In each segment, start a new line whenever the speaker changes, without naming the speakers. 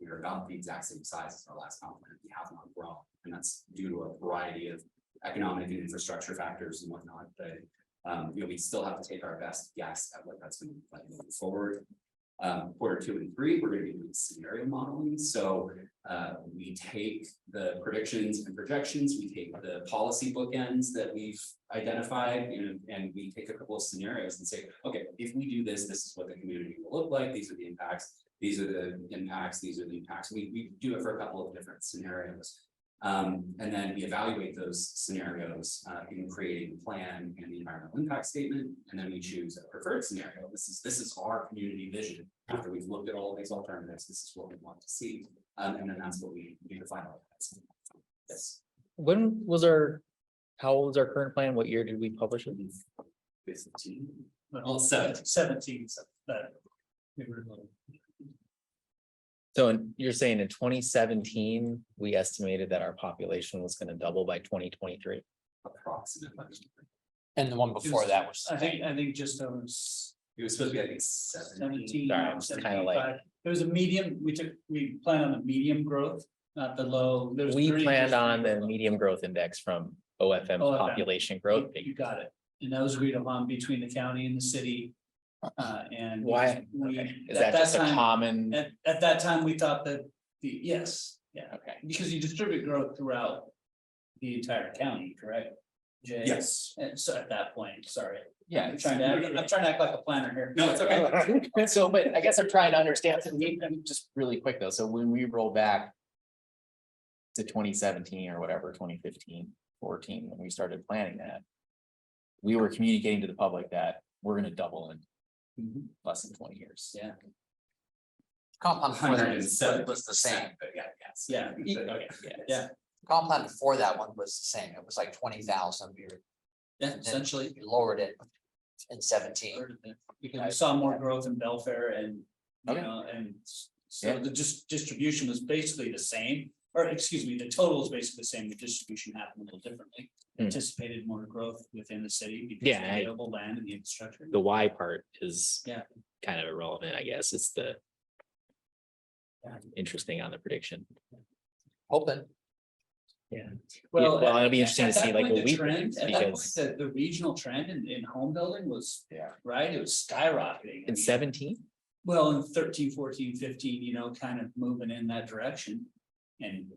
we are about the exact same size as our last comp plan, we have not grown. And that's due to a variety of economic and infrastructure factors and whatnot, but. Um, you know, we still have to take our best guess at what that's gonna look like moving forward. Um, quarter two and three, we're gonna be doing scenario modeling, so uh, we take the predictions and projections, we take the policy bookends that we've identified, you know, and we take a couple of scenarios and say, okay, if we do this, this is what the community will look like, these are the impacts, these are the impacts, these are the impacts. We, we do it for a couple of different scenarios. Um, and then we evaluate those scenarios, uh, in creating a plan and the environmental impact statement, and then we choose a preferred scenario. This is, this is our community vision. After we've looked at all these alternatives, this is what we want to see. Um, and then that's what we do to final. Yes.
When was our, how old is our current plan? What year did we publish it?
Fifteen, well, seventeen.
Seventeen, so that. we were like,
So in- you're saying in twenty seventeen, we estimated that our population was gonna double by twenty twenty-three?
approximately.
And the one before that was.
I think, I think just over s-
It was supposed to be, I think,
seventeen.
seventeen.
Sorry, I was kinda like-
75. It was a medium, we took, we planned on a medium growth, not the low. There was
We
30
planned on the
low.
medium growth index from OFM
OFM.
population growth.
You you got it. And that was agreed upon between the county and the city. Uh, and.
Why?
we-
Okay. Is
at
that just a
time-
common?
At, at that time, we thought that the, yes, yeah,
Okay,
because you distribute growth throughout the entire county, correct? Jay?
Yes,
And so at that point, sorry,
yeah.
I'm trying to, act- I'm trying to act like a planner here.
No, it's okay.
so, but I guess I'm trying to understand, so we- I'm just really quick though, so when we roll back. To twenty seventeen or whatever, 2015, 14, when we started planning that. We were communicating to the public that we're gonna double in
Mhm.
less than twenty years.
Yeah.
Compound before that was-
107%,
was the same.
But yeah, yes.
Yeah.
But, okay,
Yeah.
Compound before that one was the same. It was like twenty thousand.
Yeah, essentially.
We lowered it in seventeen.
Because we saw more growth in Belfair and, you
Okay.
know, and s- so
Yeah.
the dis- distribution was basically the same. Or excuse me, the total is basically the same, the distribution happened a little differently,
Hmm.
anticipated more growth within the city. because of
Yeah,
the
I-
Available land and the infrastructure.
The why part is.
Yeah.
Kind of irrelevant, I guess, it's the. Interesting on the prediction.
Hoping.
Well,
at-
it'll be interesting
at
to see
that
like
point,
what
the
we
trend-
predict
At that point,
because
the, the regional trend in, in home building was.
Yeah.
Right, it was skyrocketing. I
in
mean,
seventeen,
Well, in 13, 14, 15, you know, kind of moving in that direction. And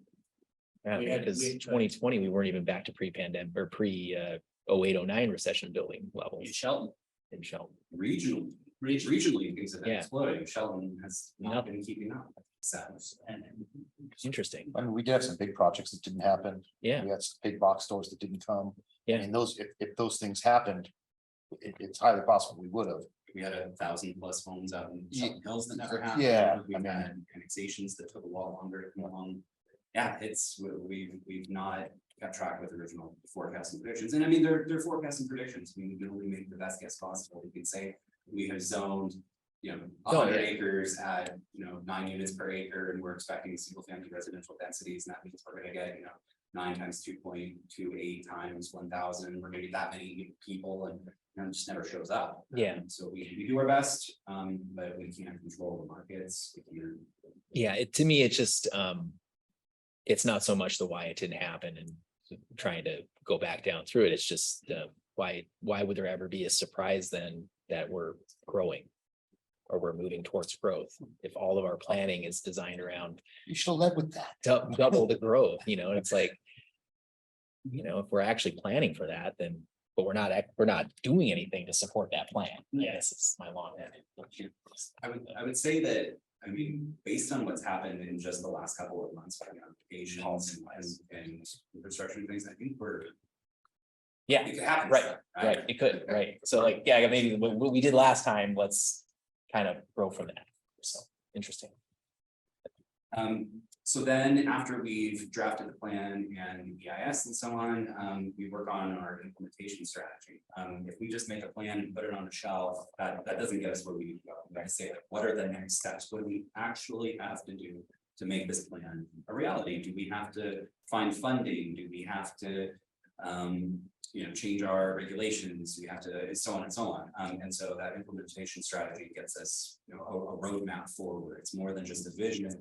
yeah,
We had- we
because
had-
twenty twenty, we weren't even back to pre-pandemic or pre uh 08, 09 recession building levels.
in Shelton,
in Shelton.
Regional,
region,
regionally, things have been
Yeah.
exploding. Sheldon has not
Nothing.
been keeping up. Sad.
and
Interesting.
I mean, we did have some big projects that didn't happen.
Yeah.
We had some big box stores that didn't come.
Yeah.
And those, if, if those things happened, it, it's highly possible we would have.
We had a thousand plus homes out in
Ye-
Sheldon Hills that never happened.
yeah, I
We've
mean-
had annexations that took a lot longer to come along. Yeah, it's, we- we've, we've not kept track with original forecasting predictions. And I mean, they're, they're forecasting predictions. We can only make the best guess possible. We can say we have zoned, you know,
yeah.
Oh,
hundred acres at, you know, nine units per acre and we're expecting single family residential densities. And that means we're gonna get, you know, nine times two point two eight times one thousand, we're gonna get that many people and and it just never shows up.
Yeah.
Um, So we, we do our best, um, but we can't control the markets. We can't.
Yeah, it, to me, it's just, um. It's not so much the why it didn't happen and trying to go back down through it. It's just, uh, why, why would there ever be a surprise then that we're growing? Or we're moving towards growth if all of our planning is designed around
You should have led with that.
dou- double the growth, you know, it's like. You know, if we're actually planning for that, then, but we're not, act- we're not doing anything to support that plan.
Yeah.
Yes, it's my long.
I would, I would say that, I mean, based on what's happened in just the last couple of months, you know, Asians and, and infrastructure and things, I think we're.
Yeah.
It could happen.
Right, Right, it could, right, so like, yeah, maybe what what we did last time, let's kind of grow from that, so, interesting.
Um, so then after we've drafted the plan and the EIS and so on, um, we work on our implementation strategy. Um, if we just make a plan and put it on a shelf, that, that doesn't get us where we need to go. Like I say, like, what are the next steps? What do we actually have to do to make this plan a reality? Do we have to find funding? Do we have to, um, you know, change our regulations? We have to, and so on and so on. Um, and so that implementation strategy gets us, you know, a, a roadmap forward. It's more than just a vision.